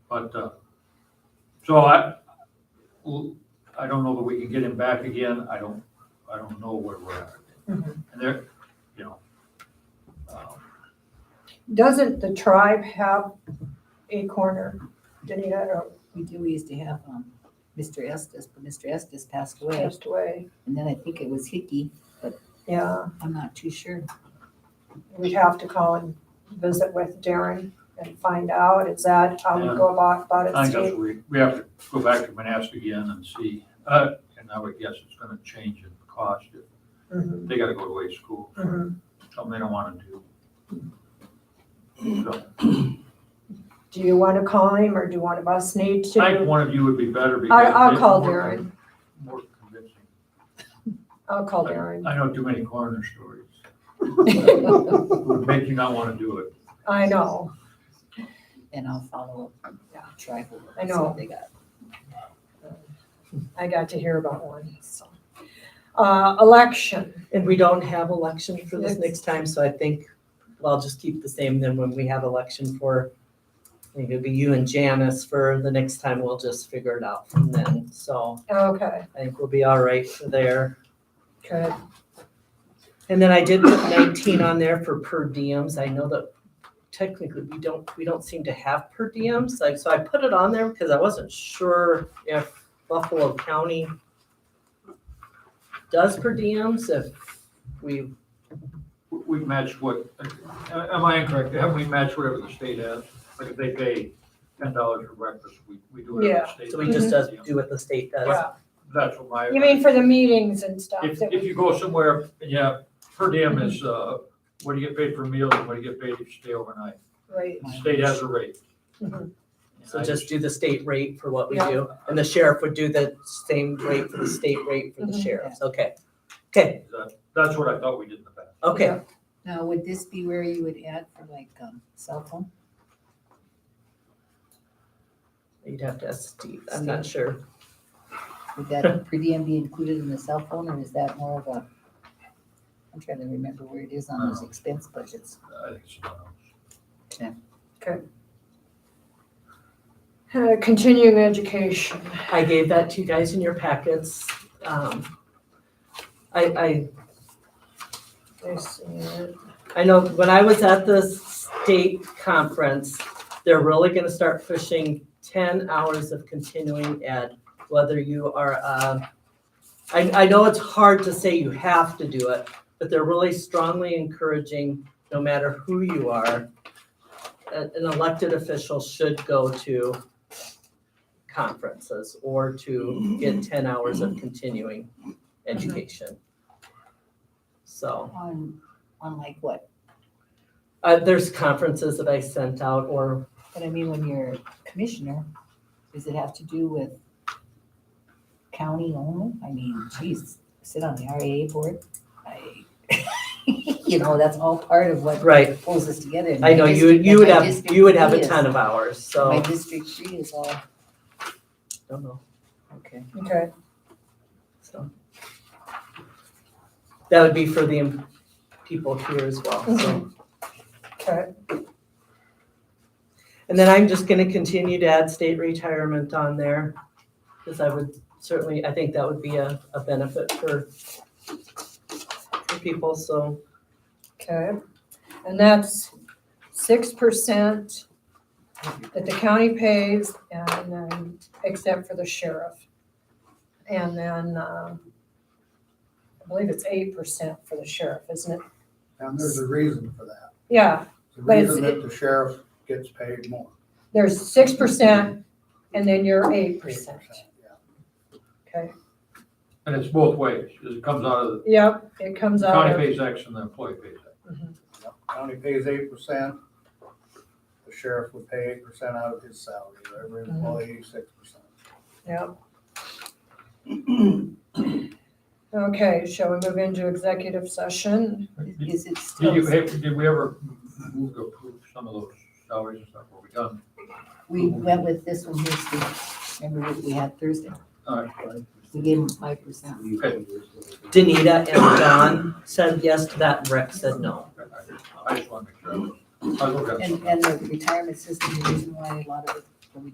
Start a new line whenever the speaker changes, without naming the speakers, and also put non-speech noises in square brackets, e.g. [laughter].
But, uh, so I, I don't know that we can get him back again. I don't, I don't know where we're at.
Mhm.
And there, you know. um,
Doesn't the tribe have a corner, Danita, or
We do, we used to have, um, Mr. Estes, but Mr. Estes passed away,
passed away?
and then I think it was Hickey,
Yeah,
I'm not too
[laughs]
sure.
we'd have to call and visit with Darren and find out, is that how we go about,
I
about it,
think that's,
Steve?
we, we have to go back to Manassas again and see, uh, and I would guess it's gonna change in cost.
Mhm,
They gotta go to a school,
mhm.
something they don't wanna do. So
Do you want to call him, or do one of us need to?
I think one of you would be better because.
I'll, I'll
they-
call
more-
Darren,
More convincing.
I'll call Darren, [laughs]
I know too many coroner stories. Would make you not wanna do it.
I know,
And I'll follow up, yeah, tribal.
I
see what
know.
They got.
I got to hear about one, so. Uh, election,
And we don't have election for this
Yes.
next time, so I think well, I'll just keep the same then when we have election for, I think it'll be you and Janice for the next time, we'll just figure it out from then. So
okay,
I think we'll be all right for there.
good,
And then I did put nineteen on there for per diems. I know that technically we don't, we don't seem to have per diems. Like, so I put it on there because I wasn't sure if Buffalo County does per diems, if we
We we match what, am I incorrect? Haven't we matched whatever the state has? Like if they pay ten dollars for breakfast, we, we do whatever the state.
So we just does
does.
do what the state does.
yeah.
That's what my.
You mean for the meetings and stuff?
If,
that
if
we-
you go somewhere, yeah, per diem
Mm-hmm.
is, uh, what do you get paid for meals and what do you get paid if you stay overnight?
Right,
The state has a rate.
Mhm.
Mm-hmm. So just do the state rate for what we
Yeah.
do, and the sheriff would do the same rate for the state rate for the
Mhm.
sheriffs, okay? Okay,
That- That's what I thought we did in the past.
okay,
Yeah.
Now, would this be where you would add for like, um, cell phone?
you'd have to ask Steve, I'm not sure.
Would that [laughs] per diem be included in the cell phone, or is that more of a? I'm trying to remember where it is on
Uh.
those expense budgets.
I think it's someone else.
Uh, continuing education,
I gave that to you guys in your packets. Um, I, I
I see it.
I know when I was at the state conference, they're really gonna start pushing ten hours of continuing ed, whether you are, um, I, I know it's hard to say you have to do it, but they're really strongly encouraging, no matter who you are, a- an elected official should go to conferences or to get ten hours of continuing education. So.
On, on like what?
Uh, there's conferences that I sent out or,
But I mean, when you're commissioner, does it have to do with county only? I mean, geez, sit on the RAA board? I, [laughs] You know, that's all part of what
right,
pulls us together.
I know you, you would have, you would have a ton of hours,
My
so,
district three is all,
don't know,
okay.
okay,
so. That would be for the people here as well, so.
okay,
And then I'm just gonna continue to add state retirement on there, because I would certainly, I think that would be a, a benefit for for people, so,
okay. And that's six percent that the county pays and then, except for the sheriff. And then, uh, I believe it's eight percent for the sheriff, isn't it?
And there's a reason for that.
Yeah,
The
But it's-
reason that the sheriff gets paid more.
there's six percent and then you're eight percent,
Yeah.
okay?
And it's both ways. It comes out of,
Yep, it comes
the
out
county
of,
pays X and the employee pays X.
Yep. County pays eight percent. The sheriff would pay eight percent out of his salary, every
Mm-hmm.
employee six percent.
yep. [clears throat] Okay, shall we move into executive session?
Did
Is it
did you,
still,
hey, did we ever move to approve some of those salaries and stuff? Were we done?
we went with this one here, Steve. Remember what we had Thursday?
All right.
We gave them five percent.
Okay.
Danita and Don said yes to that, Rick said no.
I just want to make sure. I was- I was looking at
And,
something.
and the retirement system, the reason why a lot of